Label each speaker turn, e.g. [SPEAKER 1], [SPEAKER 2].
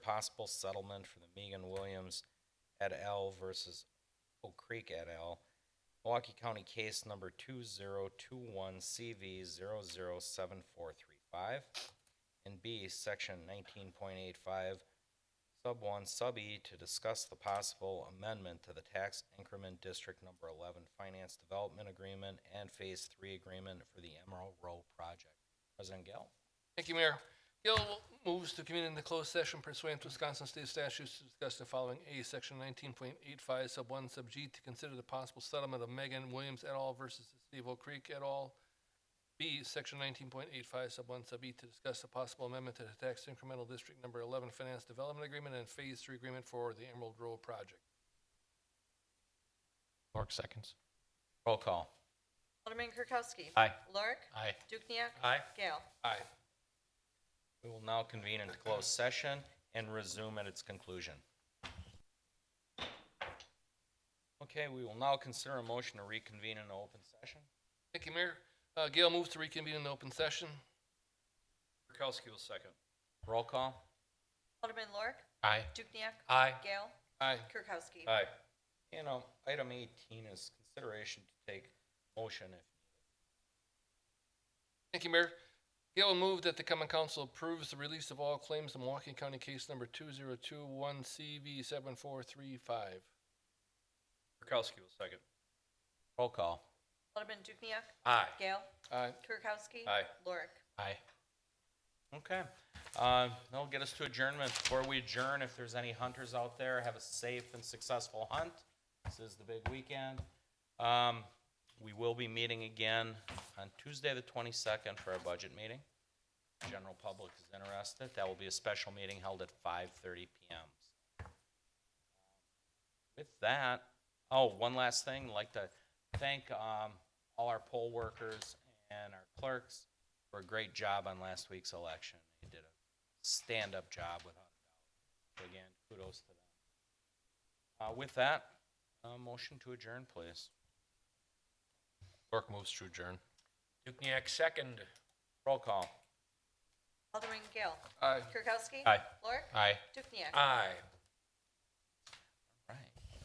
[SPEAKER 1] possible settlement for the Megan Williams et al. versus Oak Creek et al. Milwaukee County case number two zero two one CV zero zero seven four three five. And B, section nineteen point eight five, sub one, sub E, to discuss the possible amendment to the tax increment district number eleven finance development agreement and phase three agreement for the Emerald Row project. President Gale?
[SPEAKER 2] Thank you, Mayor. Gill moves to convene in the closed session pursuant to Wisconsin State statutes to discuss the following. A, section nineteen point eight five, sub one, sub G, to consider the possible settlement of Megan Williams et al. versus the City of Oak Creek et al. B, section nineteen point eight five, sub one, sub E, to discuss the possible amendment to the tax incremental district number eleven finance development agreement and phase three agreement for the Emerald Row project.
[SPEAKER 3] Lork seconds.
[SPEAKER 1] Roll call.
[SPEAKER 4] Alderman Kirkowski.
[SPEAKER 3] Aye.
[SPEAKER 4] Lorik.
[SPEAKER 3] Aye.
[SPEAKER 4] Dukniak.
[SPEAKER 3] Aye.
[SPEAKER 4] Gale.
[SPEAKER 2] Aye.
[SPEAKER 1] We will now convene into closed session and resume at its conclusion. Okay, we will now consider a motion to reconvene in open session.
[SPEAKER 2] Thank you, Mayor. Uh, Gill moves to reconvene in open session.
[SPEAKER 1] Kirkowski will second. Roll call.
[SPEAKER 4] Alderman Lorik.
[SPEAKER 3] Aye.
[SPEAKER 4] Dukniak.
[SPEAKER 3] Aye.
[SPEAKER 4] Gale.
[SPEAKER 2] Aye.
[SPEAKER 4] Kirkowski.
[SPEAKER 1] Aye. You know, item eighteen is consideration to take motion if,
[SPEAKER 2] Thank you, Mayor. Gail moved that the common council approves the release of all claims in Milwaukee County case number two zero two one CV seven four three five.
[SPEAKER 5] Kirkowski will second.
[SPEAKER 1] roll call.
[SPEAKER 4] Alderman Dukniak.
[SPEAKER 5] Aye.
[SPEAKER 4] Gale.
[SPEAKER 2] Aye.
[SPEAKER 4] Kirkowski.
[SPEAKER 5] Aye.
[SPEAKER 4] Lorik.
[SPEAKER 3] Aye.
[SPEAKER 1] Okay, uh, that'll get us to adjournment. Before we adjourn, if there's any hunters out there, have a safe and successful hunt. This is the big weekend. Um, we will be meeting again on Tuesday, the twenty-second, for our budget meeting. General public is interested. That will be a special meeting held at five-thirty PM. With that, oh, one last thing, I'd like to thank, um, all our poll workers and our clerks for a great job on last week's election. They did a stand-up job without a doubt. So Again, kudos to them. Uh, with that, uh, motion to adjourn, please.
[SPEAKER 3] Lork moves to adjourn.
[SPEAKER 5] Dukniak second.
[SPEAKER 1] Roll call.
[SPEAKER 4] Alderman Gale.
[SPEAKER 2] Aye.
[SPEAKER 4] Kirkowski.
[SPEAKER 3] Aye.
[SPEAKER 4] Lorik.
[SPEAKER 3] Aye.
[SPEAKER 4] Dukniak.
[SPEAKER 5] Aye.